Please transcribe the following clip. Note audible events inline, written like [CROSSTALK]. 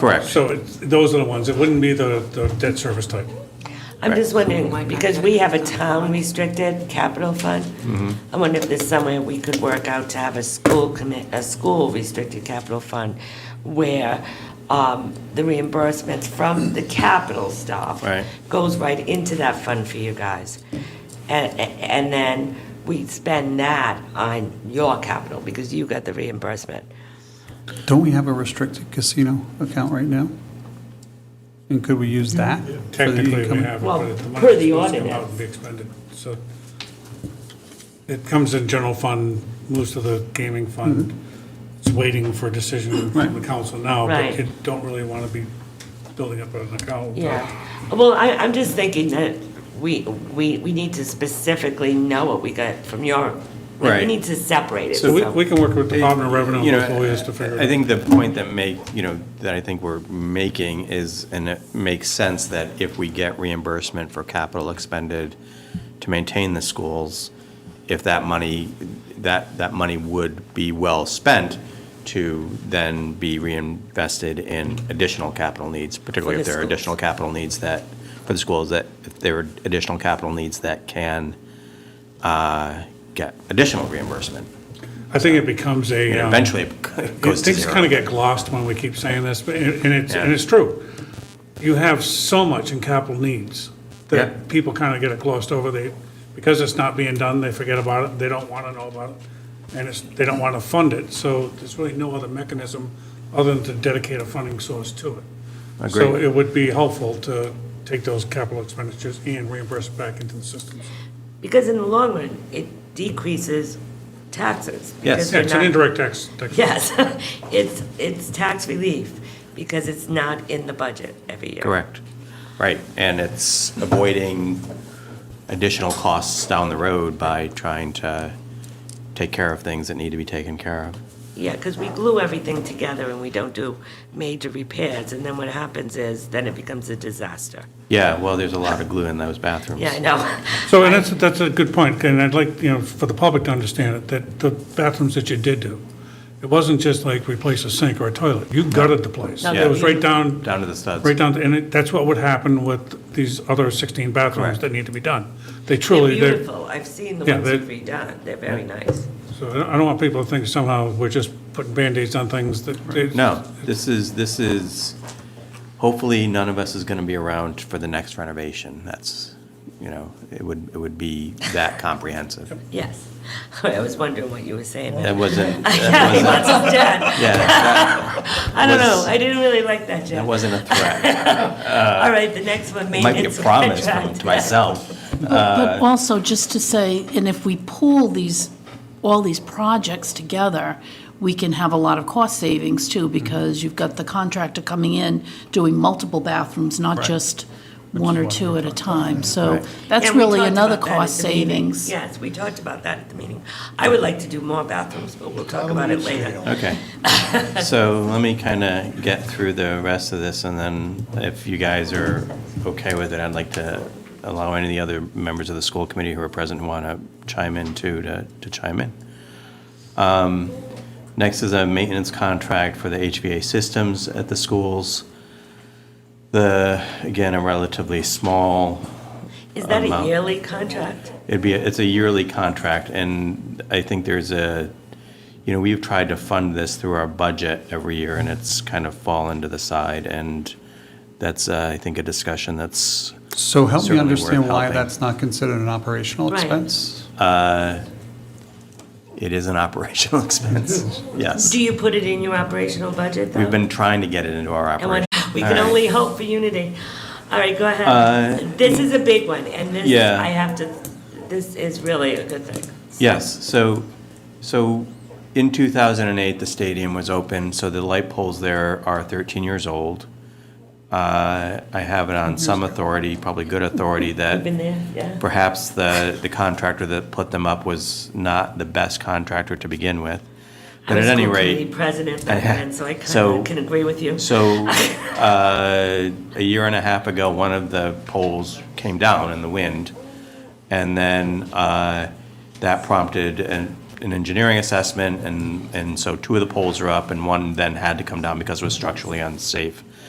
Correct. So it's- those are the ones, it wouldn't be the the debt service type. I'm just wondering, because we have a town restricted capital fund, I wonder if there's somewhere we could work out to have a school commit, a school restricted capital fund where um, the reimbursements from the capital stuff Right. goes right into that fund for you guys. And, and then we spend that on your capital because you got the reimbursement. Don't we have a restricted casino account right now? And could we use that? for the Technically, we income? have it, Well, but the per money's the supposed to come out ordinance. and be expended, so. It comes in general fund, moves to the gaming fund. Mm-hmm. It's waiting for a decision from the council now, but Right. you don't really want to be building up an account. Yeah, well, I, I'm just thinking that we, we, we need to specifically know what we got from your, like, we Right. need to separate it, So we so- we can work with the Department of Revenue You and know, with lawyers to figure it out. I think the point that make, you know, that I think we're making is, and it makes sense that if we get reimbursement for capital expended to maintain the schools, if that money, that, that money would be well spent to then be reinvested in additional capital needs, particularly For if the there are schools. additional capital needs that, for the schools, that if there are additional capital needs that can uh, get additional reimbursement. I think it becomes a. And um, eventually it goes to Things kind of zero. get glossed when we keep saying this, but, and it's, and Yeah. it's true. You have so much in capital needs Yeah. that people kind of get it glossed over. They, because it's not being done, they forget about it, they don't want to know about it, and it's, they don't want to fund it. So there's really no other mechanism other than to dedicate a funding source to it. So Agreed. it would be helpful to take those capital expenditures and reimburse it back into the systems. because in the long run, it decreases taxes. because Yeah, we're it's an not- indirect tax. tax- Yes, [LAUGHS] it's, it's tax relief, because it's not in the budget every year. Correct. Right, and it's avoiding additional costs down the road by trying to take care of things that need to be taken care of. Yeah, because we glue everything together and we don't do major repairs, and then what happens is, then it becomes a disaster. Yeah, well, there's a lot of glue in those bathrooms. Yeah, [LAUGHS] I know. So, and that's, that's a good point, and I'd like, you know, for the public to understand it, that the bathrooms that you did do, it wasn't just like replace a sink or a toilet, you gutted the place. No, It was you- right down, Down to the studs. right down, to- and it- that's what would happen with these other 16 bathrooms Correct. that need to be done. They They're truly, they're, beautiful, I've seen the Yeah, ones they're- you've redone, they're very nice. so I don't- I don't want people to think somehow we're just putting Band-Aids on things that. they- No, this is, this is, hopefully, none of us is going to be around for the next renovation. That's, you know, it would, it would be that comprehensive. Yes. [LAUGHS] I was wondering what you were saying. there. That [LAUGHS] wasn't, that He wasn't, wants us dead. yeah, that- [LAUGHS] I don't know, Was- I didn't really like that, that Jeff. wasn't a threat. All right, the next one, It Might be a maintenance promise from- contract. to myself. But also, just to say, and if we pool these, all these projects together, we can have a lot of cost savings too, because you've got the contractor coming in, doing multiple bathrooms, not just one or two at a time. So Right. that's And we really talked another about that at cost the meeting. savings. Yes, we talked about that at the meeting. I would like to do more bathrooms, but we'll talk about it later. Okay. So let me kind of get through the rest of this, and then if you guys are okay with it, I'd like to allow any of the other members of the school committee who are present who want to chime in too, to to chime in. Um, Next is a maintenance contract for the HVA systems at the schools. The, again, a relatively small Is that a Amount. yearly contract? It'd be, it's a yearly contract, and I think there's a, you know, we've tried to fund this through our budget every year, and it's kind of fallen to the side, and that's, uh, I think, a discussion that's, So help me Certainly worth understand why helping. that's not considered an operational Right. expense? it is an [LAUGHS] operational expense. Yes. Do you put it in your operational budget, though? We've been trying to get it into our And when- operation. We All can right. only hope for unity. All right, go Uh, ahead. This is a big one, and this, Yeah. I have to, this is really a good thing. Yes, so, so in 2008, the stadium was open, so the light poles there are 13 years old. Uh, I have it on some authority, probably good authority, that Been there, yeah? perhaps the, the contractor that put them up was not the best contractor to begin with. But I at was any school committee rate, president back then, so I kind So- of can agree with you. so uh, a year and a half ago, one of the poles came down in the wind. And then uh, that prompted an, an an engineering assessment, and, and so two of the poles are up, and one then had to come down because it was structurally unsafe.